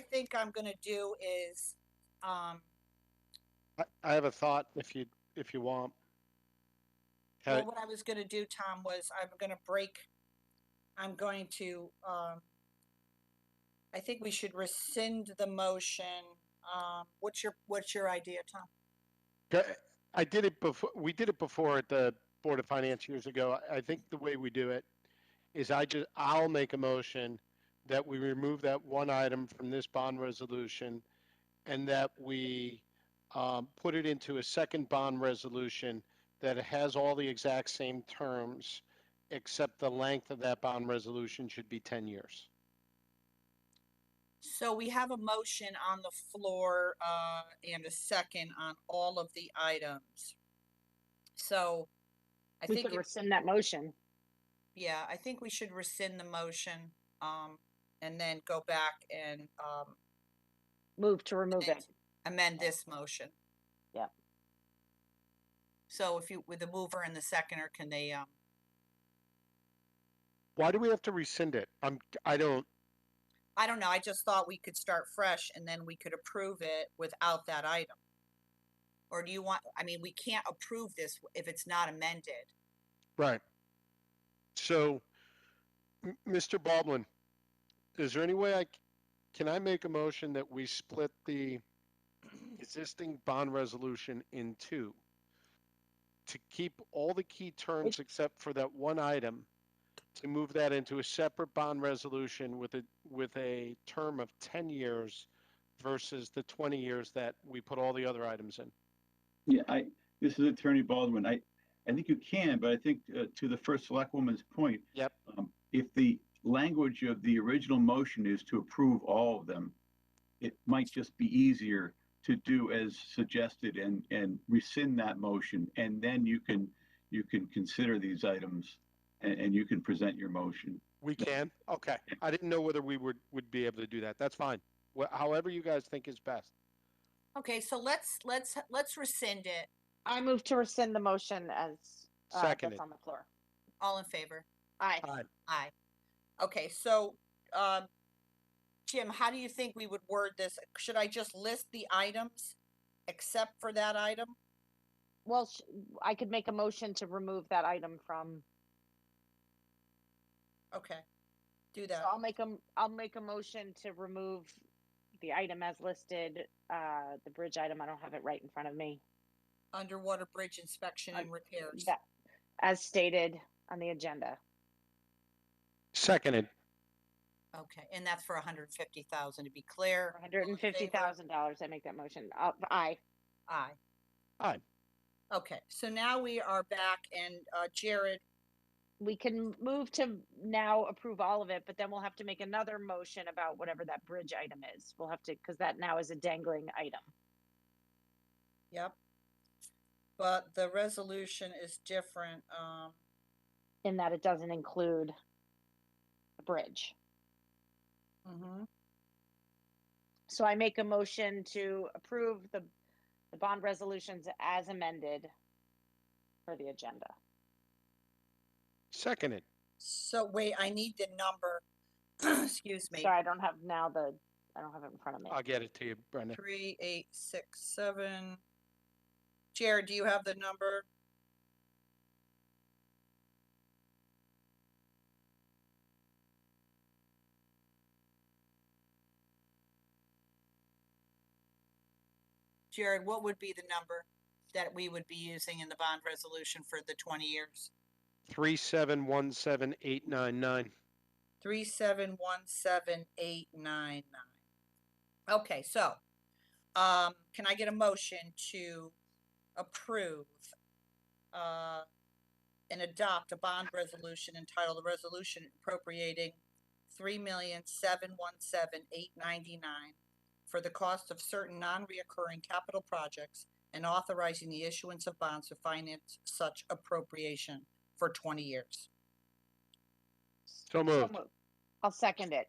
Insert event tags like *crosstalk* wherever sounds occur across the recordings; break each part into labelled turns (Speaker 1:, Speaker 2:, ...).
Speaker 1: think I'm gonna do is, um,
Speaker 2: I, I have a thought if you, if you want. Uh,
Speaker 1: well,
Speaker 2: Had-
Speaker 1: what I was gonna do, Tom, was I'm gonna break, I'm going to, um, I think we should rescind the motion. Um, what's your, what's your idea, Tom?
Speaker 2: Go- I did it before, we did it before at the Board of Finance years ago. I- I think the way we do it is I just, I'll make a motion that we remove that one item from this bond resolution and that we um, put it into a second bond resolution that has all the exact same terms, except the length of that bond resolution should be 10 years.
Speaker 1: So we have a motion on the floor, uh, and a second on all of the items. So I
Speaker 3: We
Speaker 1: think,
Speaker 3: could
Speaker 1: it-
Speaker 3: rescind that motion.
Speaker 1: yeah, I think we should rescind the motion, um, and then go back and, um,
Speaker 3: Move to remove
Speaker 1: amend-
Speaker 3: it.
Speaker 1: amend
Speaker 3: Okay.
Speaker 1: this motion.
Speaker 3: Yep.
Speaker 1: So if you, with the mover and the seconder, can they, um,
Speaker 2: Why do we have to rescind it? I'm, I don't,
Speaker 1: I don't know, I just thought we could start fresh and then we could approve it without that item. Or do you want, I mean, we can't approve this if it's not amended.
Speaker 2: Right. So, M- Mr. Baldwin, is there any way I, c- can I make a motion that we split the existing bond resolution in two? To keep all the key terms except for that one item, to move that into a separate bond resolution with a, with a term of ten years versus the twenty years that we put all the other items in?
Speaker 4: Yeah, I, this is Attorney Baldwin. I, I think you can, but I think uh, to the first select woman's point.
Speaker 2: Yep.
Speaker 4: um, If the language of the original motion is to approve all of them, it might just be easier to do as suggested and, and rescind that motion. And then you can, you can consider these items and, and you can present your motion.
Speaker 2: We can? Okay. I didn't know whether we would, would be able to do that. That's fine. Wh- However you guys think is best.
Speaker 1: Okay, so let's, let's, let's rescind it.
Speaker 3: I move to rescind the motion as uh,
Speaker 2: Seconded.
Speaker 3: that's on the floor.
Speaker 1: All in favor?
Speaker 3: Aye.
Speaker 1: Aye. Okay, so, um, Jim, how do you think we would word this? Should I just list the items except for that item?
Speaker 3: Well, sh- I could make a motion to remove that item from,
Speaker 1: Okay, do
Speaker 3: so
Speaker 1: that.
Speaker 3: I'll make a, m- I'll make a motion to remove the item as listed, uh, the bridge item. I don't have it right in front of me.
Speaker 1: Underwater bridge inspection and repairs.
Speaker 3: That, as stated on the agenda.
Speaker 2: Seconded.
Speaker 1: Okay, and that's for a hundred and fifty thousand, to be clear. All in
Speaker 3: Hundred and fifty
Speaker 1: favor?
Speaker 3: thousand dollars. I make that motion. Uh, aye.
Speaker 1: Aye.
Speaker 2: Aye.
Speaker 1: Okay, so now we are back and uh, Jared,
Speaker 3: we can move to now approve all of it, but then we'll have to make another motion about whatever that bridge item is. We'll have to, because that now is a dangling item.
Speaker 1: yep. But the resolution is different. Um,
Speaker 3: In that it doesn't include the bridge. Mm-hmm.
Speaker 1: mhm.
Speaker 3: So I make a motion to approve the, the bond resolutions as amended for the agenda.
Speaker 2: Seconded.
Speaker 1: So wait, I need the number. *clears throat* Excuse me.
Speaker 3: Sorry, I don't have now the, I don't have it in front of me.
Speaker 2: I'll get it to you, Brenda.
Speaker 1: Three, eight, six, seven. Jared, do you have the number? Jared, what would be the number that we would be using in the bond resolution for the twenty years?
Speaker 2: Three, seven, one, seven, eight, nine, nine.
Speaker 1: Three, seven, one, seven, eight, nine, nine. Okay, so, um, can I get a motion to approve, uh, and adopt a bond resolution entitled a resolution appropriating three million, seven, one, seven, eight, ninety-nine for the cost of certain non-reoccurring capital projects and authorizing the issuance of bonds to finance such appropriation for twenty years.
Speaker 2: So
Speaker 3: So
Speaker 2: moved.
Speaker 3: moved. I'll second it.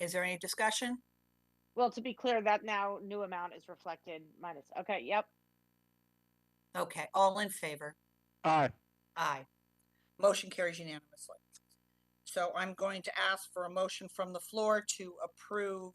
Speaker 1: Is there any discussion?
Speaker 3: Well, to be clear, that now new amount is reflected minus, okay, yep.
Speaker 1: Okay, all in favor?
Speaker 2: Aye.
Speaker 1: Aye. Motion carries unanimously. So I'm going to ask for a motion from the floor to approve